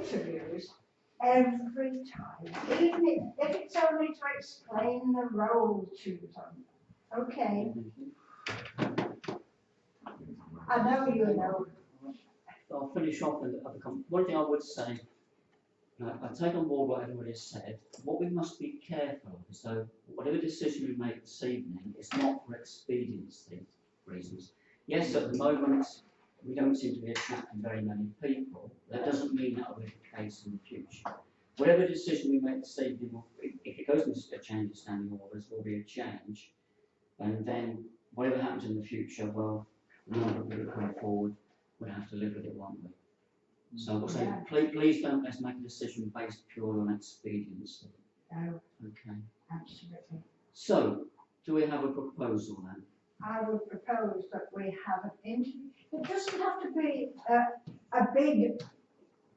issues every time, even if, if it's only to explain the role to them. Okay, I know you know, I'll finish off with other com, one thing I would say, and I, I take on board what everybody has said, what we must be careful of is though, whatever decision we make this evening, it's not for expediency reasons. Yes, at the moment, we don't seem to be attracting very many people, that doesn't mean that will be the case in the future. Whatever decision we make this evening, will- if if it goes into a change in standing orders, will be a change. And then whatever happens in the future, well, the number of people coming forward we'll have to live with it, won't we? So I would say, Yeah. please, please don't let's make a decision based purely on expediency, no, okay? absolutely. So, do we have a proposal then? I would propose that we have an interview, it doesn't have to be a, a big,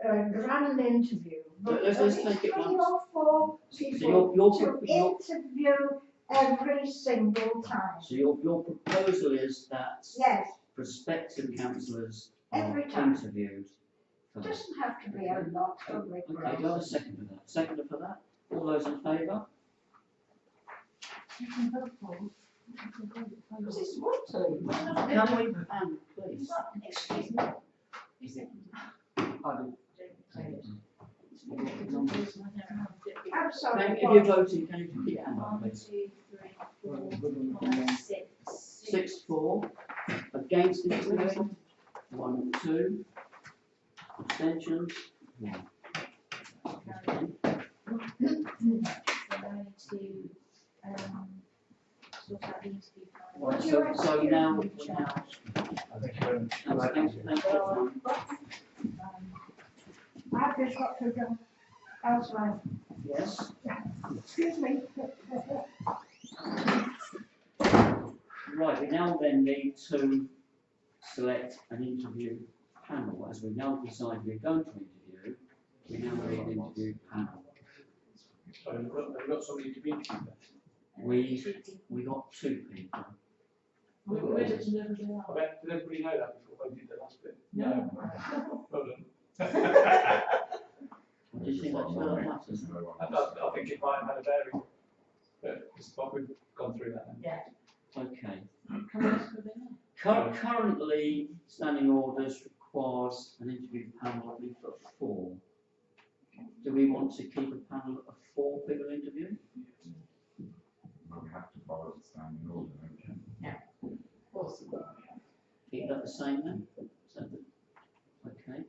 uh, grand interview. but Let- let's- let's at least take it Three once. or four So people your, your, to pro- your, interview every single time. so your, your proposal is that Yes, prospective councillors are Every time. interviewed it first? doesn't have to be a lot of Okay, do I have a regrets. second for that? Second for that? All those in favour? Because it's water. Can we, Anne, please? Excuse me. I'm Can- sorry. If you're voting, can you keep Anne on, One, please? two, three, four, five, six. Six, four, against this motion, one, two, abstentions, one. Okay, So I need to, um, sort out the interview. panel. Right, so, so now, we now, that's, thanks, thanks, everyone. Um, I've just got to go elsewhere. yes, Excuse me. right, we now then need to select an interview panel, as we now decide we're going to interview, we now need an interview panel. Sorry, we've got, we've got somebody to be interviewed. We, two people. we got two people, We- we just never do I bet, did everybody know that before they did the last bit? No. Well done. I, do you think that's all that matters? I, I think it might have had a bearing, but it's, but we've gone through that now. Okay. Cur- currently, standing orders requires an interview panel, I believe, of four. Do we want to keep a panel of four people interviewing? Well, we have to follow the standing order, don't we? Keep that the same then? Is that the- Okay,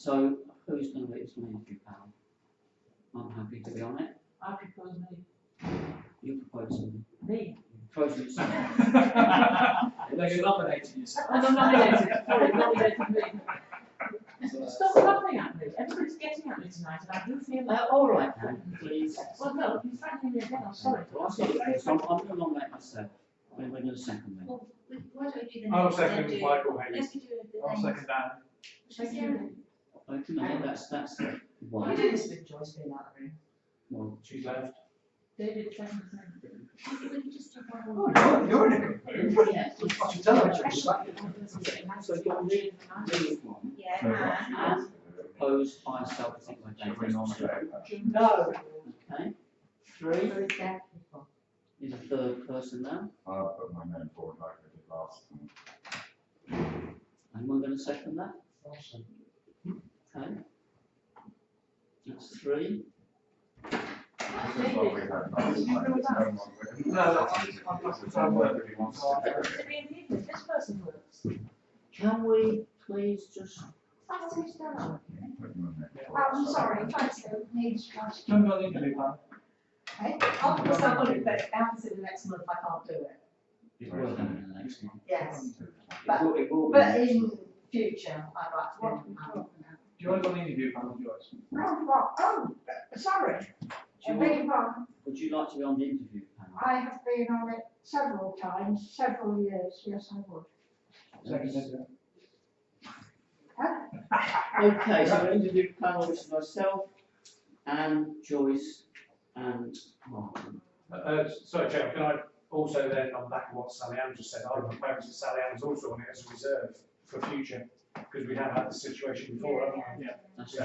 so who's going to be its main interview panel? I'm happy to be on it. I propose me, You propose something. me. Propose yourself. They're going to nominate you, so. And I'm nominated, sorry, nominated me. Stop laughing at me, everybody's getting at me tonight and I do feel like, Uh, all right then, please. well, no, you're frightening me again, I'm sorry. Well, I've got it, so I'm, I'm going to nominate myself. We're going to second then. Well, we- why don't we do the I'll names then second do- Michael Hayes. Let's do the I'll names. second that. Should we do- Okay, I think that's, that's the one. We do this with Joyce being out of the room. Well, She's left. David, second, thing. We could just do one Oh, more. you're, you're in a good mood. Yes. I should tell her, I should slap you. So you're leaving, leaving one. Yeah, So and- that's- that's- Opposed by self, I think we're Should we taking on. nominate her? No. Okay, three Well, is the third person now, I'll put my name forward like I did last time. anyone gonna second that? Okay. That's three, This is what we had last time. There's no one with- No, that's- I'm not- There's no one who wants to do it. to be in people, this person works. can we please just, That's who's done it. Put my name forward. Oh, I'm sorry, thanks, it needs trust. Remember on the interview panel? Eh? Of course, I'm going to bounce in the next month, I can't do it. it will happen in the next one. Yes, It will, it will be. but in future, I'd like What to. we um, talking Do you want to go on the interview panel, Joyce? about? Oh, what- oh, sorry, Do you want, big one. would you like to be on the interview panel? I have been on it several times, several years, yes, I would. Second, Okay, so an interview panel is myself, Anne, Joyce and Martin. Uh, Uh, sorry, Chair, can I also then, on back of what Sally Ann just said, I would propose that Sally Ann's also on it as a reserve for future, because we have had this situation before, haven't we? That's